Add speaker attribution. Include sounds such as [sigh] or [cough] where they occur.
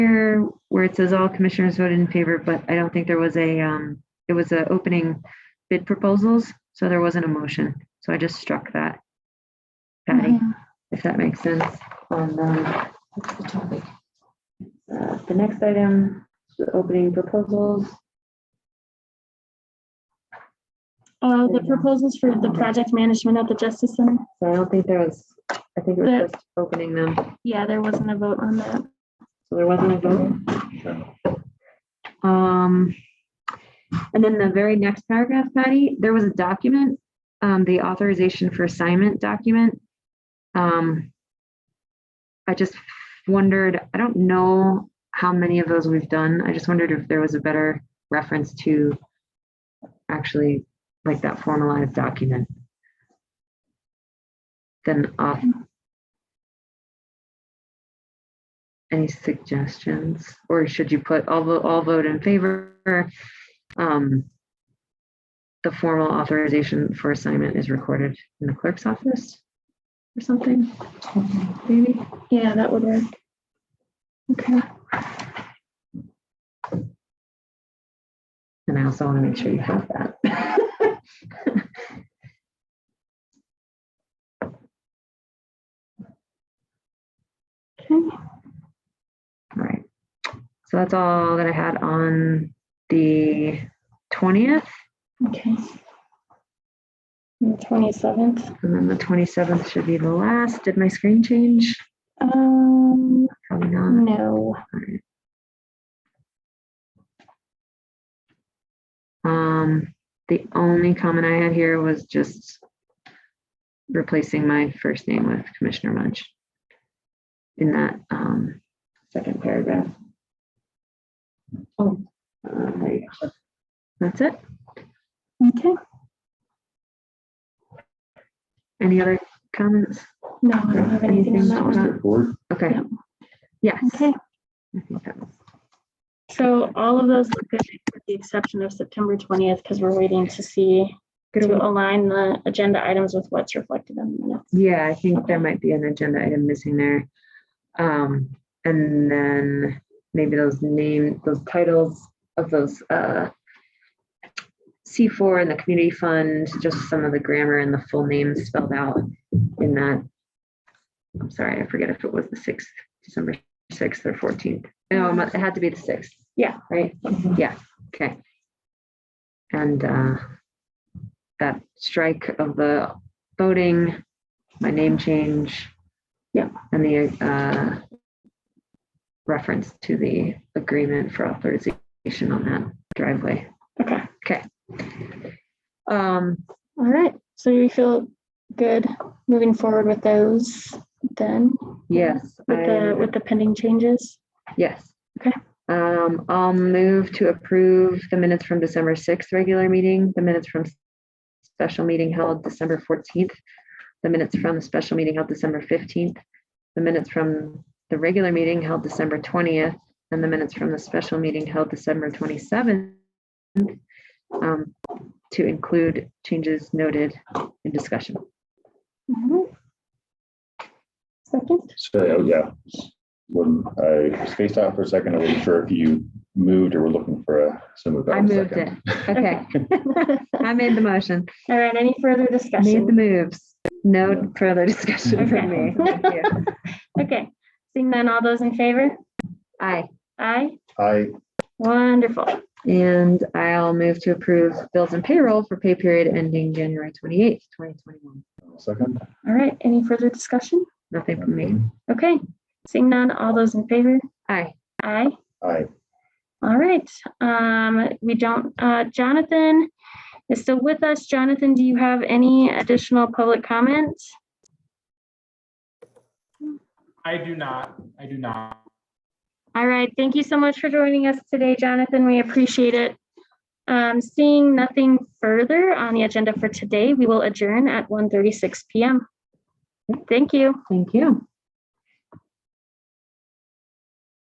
Speaker 1: here where it says all commissioners voted in favor, but I don't think there was a, um, it was a opening bid proposals, so there wasn't a motion. So I just struck that. Patty, if that makes sense on, um, what's the topic? Uh, The next item, the opening proposals.
Speaker 2: Uh, the proposals for the project management at the Justice Center.
Speaker 1: So I don't think there was, I think it
Speaker 2: There-
Speaker 1: was just opening them.
Speaker 2: Yeah, there wasn't a vote on that.
Speaker 1: So there wasn't a vote? Um, and then the very next paragraph, Patty, there was a document, um, the authorization for assignment document. Um, I just wondered, I don't know how many of those we've done. I just wondered if there was a better reference to actually like that formalized document than off. Any suggestions? Or should you put all, vo- all vote in favor? Um, The formal authorization for assignment is recorded in the clerk's office or something, maybe?
Speaker 2: Yeah, that would work. Okay.
Speaker 1: And I also want to make sure you have that. [laughs]
Speaker 2: Okay.
Speaker 1: All right. So that's all that I had on the 20th.
Speaker 2: Okay. And The twenty-seventh.
Speaker 1: And then the 27th should be the last. Did my screen change?
Speaker 2: Um,
Speaker 1: Probably not.
Speaker 2: no.
Speaker 1: Um, the only comment I had here was just replacing my first name with Commissioner Munch in that, um, second paragraph. Oh. uh, there you go. That's it.
Speaker 2: Okay.
Speaker 1: Any other comments?
Speaker 2: No, I don't have anything on
Speaker 1: Anything
Speaker 2: that
Speaker 1: else?
Speaker 2: one.
Speaker 3: Straightforward.
Speaker 1: Okay.
Speaker 2: Yep.
Speaker 1: Yes.
Speaker 2: Okay.
Speaker 1: I think that was-
Speaker 2: So all of those look good with the exception of September twentieth, because we're waiting to see
Speaker 1: Good
Speaker 2: to
Speaker 1: one.
Speaker 2: align the agenda items with what's reflected in the minutes.
Speaker 1: Yeah, I think there might be an agenda item missing there. Um, and then maybe those name, those titles of those, uh, C four and the community fund, just some of the grammar and the full names spelled out in that. I'm sorry, I forget if it was the sixth, December sixth or fourteenth. No, it mu- it had to be the sixth. Yeah. Right? Yeah, okay. And, uh, that strike of the voting my name change.
Speaker 2: Yeah.
Speaker 1: And the uh, reference to the agreement for authorization on that driveway.
Speaker 2: Okay,
Speaker 1: Um,
Speaker 2: all right. So you feel good moving forward with those then?
Speaker 1: yes.
Speaker 2: With the,
Speaker 1: I-
Speaker 2: with the pending changes?
Speaker 1: Yes.
Speaker 2: Okay.
Speaker 1: Um, I'll move to approve the minutes from December sixth regular meeting, the minutes from special meeting held December fourteenth, the minutes from the special meeting held December fifteenth, the minutes from the regular meeting held December twentieth, and the minutes from the special meeting held December twenty-seventh um, to include changes noted in discussion.
Speaker 2: All right. [laughs] Second?
Speaker 3: So, oh, yeah. When I spaced out for a second, I wasn't sure if you moved or were looking for a, so moved out.
Speaker 1: I
Speaker 3: a
Speaker 1: moved it.
Speaker 3: second.
Speaker 1: [laughs] Okay, I made the motion.
Speaker 2: All right, any further
Speaker 1: Made the
Speaker 2: discussion?
Speaker 1: moves.
Speaker 3: Yeah.
Speaker 1: No further discussion
Speaker 2: Okay.
Speaker 1: from
Speaker 2: [laughs]
Speaker 1: me. Thank you.
Speaker 2: Okay, seeing none, all those in favor?
Speaker 1: Aye.
Speaker 2: Aye,
Speaker 3: I,
Speaker 2: wonderful.
Speaker 1: And I'll move to approve bills and payroll for pay period ending January twenty-eighth, twenty twenty-one.
Speaker 3: second.
Speaker 2: All right, any further discussion?
Speaker 1: Nothing from me.
Speaker 2: Okay, seeing none, all those in favor?
Speaker 1: Aye.
Speaker 2: Aye.
Speaker 3: I,
Speaker 2: All right, um, we don't, uh, Jonathan is still with us. Jonathan, do you have any additional public comments?
Speaker 4: I do not. I do not.
Speaker 2: All right, thank you so much for joining us today, Jonathan. We appreciate it. Um, seeing nothing further on the agenda for today, we will adjourn at 1:36 PM. Thank you.
Speaker 1: Thank you.